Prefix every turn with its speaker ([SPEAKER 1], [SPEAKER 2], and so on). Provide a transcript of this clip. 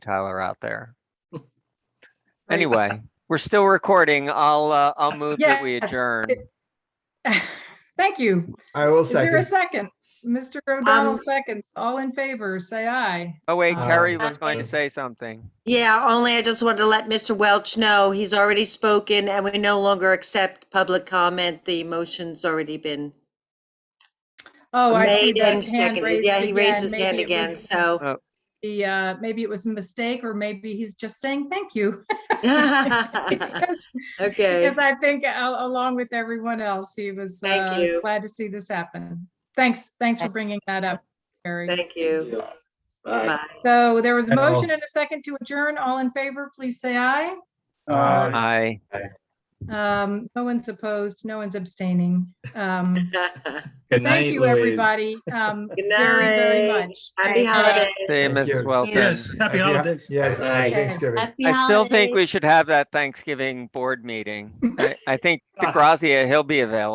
[SPEAKER 1] Tyler out there.
[SPEAKER 2] Right.
[SPEAKER 1] Anyway, we're still recording. I'll, uh, I'll move that we
[SPEAKER 2] Yes.
[SPEAKER 1] adjourn.
[SPEAKER 2] Thank you.
[SPEAKER 3] I will
[SPEAKER 2] Is there a
[SPEAKER 3] second.
[SPEAKER 2] second? Mr. O'Donnell,
[SPEAKER 4] Um,
[SPEAKER 2] second. All in favor, say aye.
[SPEAKER 1] Oh wait,
[SPEAKER 3] Uh,
[SPEAKER 1] Carrie was going to
[SPEAKER 3] Okay.
[SPEAKER 1] say something.
[SPEAKER 4] Yeah, only I just wanted to let Mr. Welch know he's already spoken and we no longer accept public comment. The motion's already been
[SPEAKER 2] Oh, I see
[SPEAKER 4] made
[SPEAKER 2] that
[SPEAKER 4] and
[SPEAKER 2] hand
[SPEAKER 4] seconded.
[SPEAKER 2] raised
[SPEAKER 4] Yeah, he raised
[SPEAKER 2] again.
[SPEAKER 4] his hand
[SPEAKER 2] Maybe it
[SPEAKER 4] again,
[SPEAKER 2] was
[SPEAKER 4] so.
[SPEAKER 2] The, uh, maybe it was a mistake or maybe he's just saying thank you. Because
[SPEAKER 4] Okay,
[SPEAKER 2] because I think al- along with everyone else, he was
[SPEAKER 4] Thank
[SPEAKER 2] uh,
[SPEAKER 4] you.
[SPEAKER 2] glad to see this happen. Thanks, thanks for bringing that up, Carrie.
[SPEAKER 4] thank you.
[SPEAKER 5] Bye.
[SPEAKER 4] Bye.
[SPEAKER 2] So there was a
[SPEAKER 3] And all-
[SPEAKER 2] motion and a second to adjourn. All in favor, please say aye.
[SPEAKER 5] Bye.
[SPEAKER 1] Hi.
[SPEAKER 2] Um, no one's opposed, no one's abstaining. Um, Thank you, everybody. um,
[SPEAKER 4] Good
[SPEAKER 2] Very, very
[SPEAKER 4] night.
[SPEAKER 2] much.
[SPEAKER 4] Happy
[SPEAKER 2] Thanks.
[SPEAKER 4] holidays.
[SPEAKER 1] See you,
[SPEAKER 3] Thank
[SPEAKER 1] Mrs.
[SPEAKER 3] you.
[SPEAKER 1] Welton.
[SPEAKER 5] Yes, happy
[SPEAKER 3] Happy ho-
[SPEAKER 5] holidays.
[SPEAKER 3] Yes,
[SPEAKER 5] Bye.
[SPEAKER 3] happy Thanksgiving.
[SPEAKER 1] I still think we should have that Thanksgiving board meeting. I, I think DeGrazia, he'll be available.